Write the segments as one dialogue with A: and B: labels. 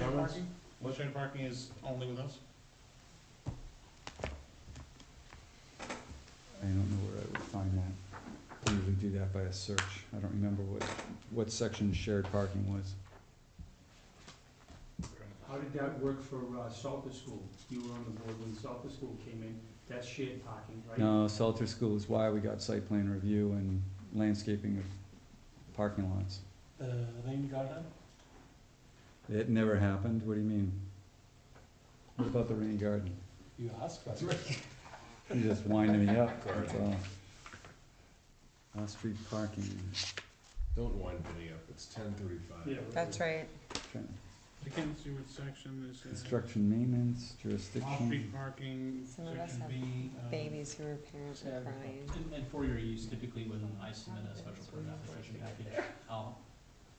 A: Left-hand
B: ordinance?
A: parking?
B: Left-hand parking is only with us?
C: I don't know where I would find that. I usually do that by a search. I don't remember what, what section shared parking was.
A: How did that work for uh, Salter School? You were on the board when Salter School came in, that's shared parking, right?
C: No, Salter School is why we got site plan review and landscaping of parking lots.
D: The rain garden?
C: It never happened, what do you mean? What about the rain garden?
D: You asked for it.
C: You're just winding me up, that's all. Off-street parking,
E: Don't wind me up, it's ten thirty-five.
A: Yeah,
F: That's right.
C: trying to
B: I can't see what section this is.
C: Construction maintenance, jurisdiction.
B: Off-street parking,
F: Some of us
B: section
F: have
B: B. uh,
F: Babies who are parents are crying.
G: And, and for your use, typically when I submit a special permit application package, I'll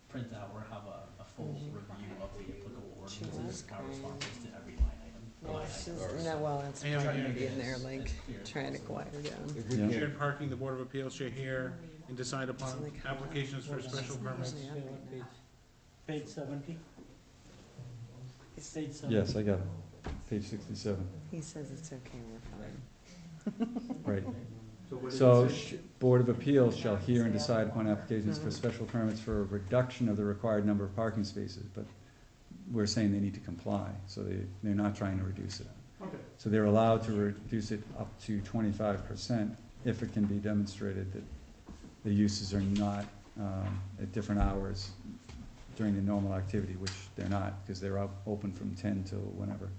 G: print out or have a, a full
F: Mhm.
G: review of the applicable
F: She
G: ordinances,
F: was
G: our responses to every line item.
F: No,
G: line
F: it's
G: item.
F: just- no, well, it's
B: Yeah,
F: probably
B: yeah,
F: gonna be in there,
G: It's-
F: like,
G: it's clear.
F: trying to quiet her down.
E: If we
C: Yeah.
E: can't,
B: Shared parking, the Board of Appeals shall hear and decide upon applications for special permits.
F: Usually I'm like that.
D: Page seventy? Page seventy?
C: Yes, I got it, page sixty-seven,
F: He says it's okay, we're fine.
C: right.
A: so what is
C: So,
A: it?
C: sh- Board of Appeals shall hear and decide upon applications for
F: Mhm.
C: special permits for a reduction of the required number of parking spaces, but we're saying they need to comply, so they, they're not trying to reduce it.
A: Okay,
C: So they're allowed to reduce it up to twenty-five percent if it can be demonstrated that the uses are not, um, at different hours during the normal activity, which they're not, because they're out, open from ten till whenever.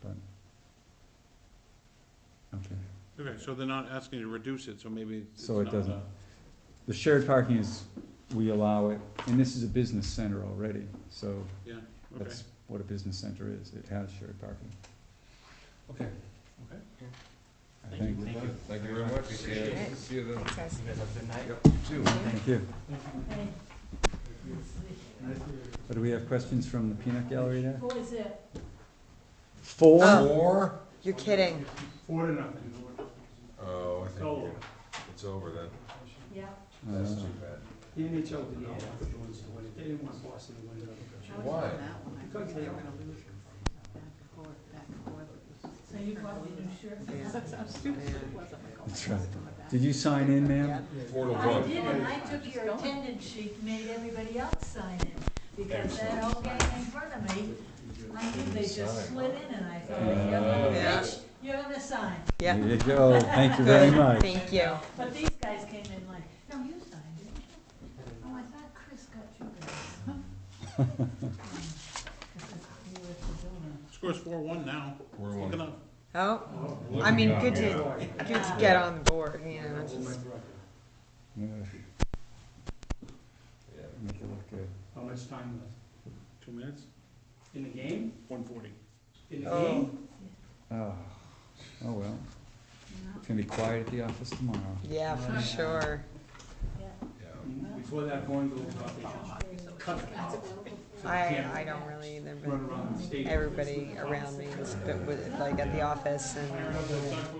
C: But, okay.
B: Okay, so they're not asking you to reduce it, so maybe it's
C: So it
B: not
C: doesn't-
B: a-
C: The shared parking is, we allow it, and this is a business center already, so
B: Yeah, okay.
C: that's what a business center is, it has shared parking.
G: Okay.
B: Okay.
C: I
G: Thank you.
C: think,
E: we're done. thank you very much, see you,
F: Appreciate it.
E: see you then.
F: Thanks, guys.
E: Two.
C: thank you. But do we have questions from the peanut gallery there?
H: What is it?
C: Four?
E: Four?
F: You're kidding.
A: four to nothing.
E: Oh, I think
A: So,
E: we're- it's over then,
H: Yeah.
E: that's
C: Uh,
E: too bad.
A: the NHL did not want the Bruins to win it, they didn't want Boston to win it.
E: Why?
A: Because they were
H: So you bought the new shirt?
C: That's right. Did you sign in, ma'am?
E: Four to
H: I
E: one.
H: did, and I took your attendance sheet, made everybody else sign in, because that whole gang in front of me, I knew they just slid in, and I thought, you little
F: Uh, Yeah.
H: bitch, you're gonna sign.
F: Yeah.
C: There you go, thank you very much.
F: Thank you.
H: But these guys came in like, no, you signed, didn't you? Oh, I thought Chris got you guys. You were at the donor.
B: Score's four-one now.
E: Four to
B: Look it
E: one.
B: up.
F: Oh,
A: Oh,
F: I mean,
E: Yeah.
F: good to, good to get on the board, you know,
A: I'll make
F: just,
A: the record.
C: Ugh,
E: Yeah.
C: Make it look good.
A: How much time left?
B: Two minutes,
A: In the game?
B: one forty.
A: In the
F: Oh.
A: game?
C: Oh, oh well,
H: No,
C: it's gonna be quiet at the office tomorrow.
F: yeah, for sure.
H: yeah.
F: Oh.
E: Yeah.
A: Mhm. Before that coin goes off, they should cut it off. So they
F: I,
A: can't
F: I don't really either,
A: Run
F: but
A: around the stadium.
F: everybody around me was, but was, like, at the office and,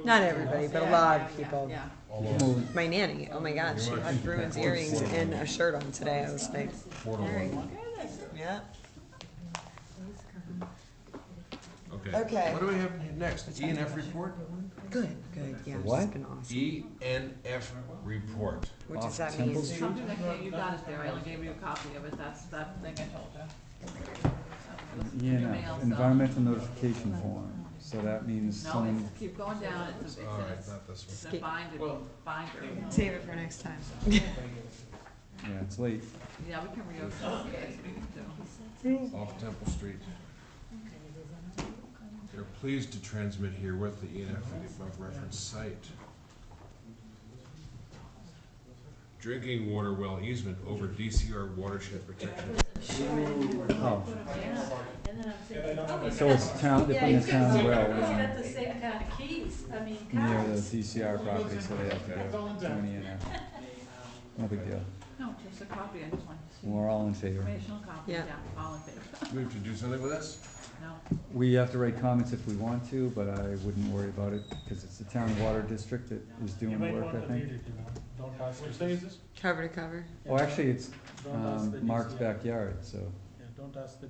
F: not everybody, but a lot of people.
E: All over.
F: My nanny, oh my god, she had Bruins earrings and a shirt on today, I was like,
E: Four to one.
F: yeah.
E: Okay.
F: Okay,
E: What do we have next, E and F report?
F: good, good, yeah, it's
C: What?
F: been awesome.
E: E and F report.
F: What does that
C: Temple
F: mean?
C: Street?
I: Something like that, you got it there, I only gave you a copy of it, that's that thing I told you.
C: Yeah, no,
I: Email, so-
C: environmental notification form, so that means
I: No,
C: someone,
I: it's- keep going down, it's a,
E: All right,
I: it's a,
E: not this one.
I: it's a binder, binder.
F: Save it for next time.
C: yeah, it's late.
I: Yeah, we can reopen this, we can do.
E: off Temple Street. They're pleased to transmit here with the E ENF for the above referenced site. Drinking water well easement over DCR watershed protection.
C: Oh,
H: And then I'm thinking, oh, he's
C: so
H: got-
C: it's town, they're
H: Yeah,
C: putting a
H: he's got
C: town
H: the-
C: well
H: he's
C: in
H: got the same kind of keys, I mean,
C: near the
H: cards.
C: DCR property, so they have to go to an ENF. No big deal,
I: No, just a copy, I just wanted to see.
C: we're all in favor.
I: Informational copy,
F: Yeah.
I: yeah, all in favor,
E: We have to do something with this?
I: no.
C: We have to write comments if we want to, but I wouldn't worry about it, because it's the town water district that is
D: You
C: doing the
D: might
C: work,
D: want
C: I
D: to read it,
C: think.
D: you know, don't ask.
B: Which day is this?
F: Cover to cover.
C: Oh, actually, it's,
D: Don't ask the
C: um, Mark's
D: DCR.
C: backyard, so.
D: Yeah, don't ask the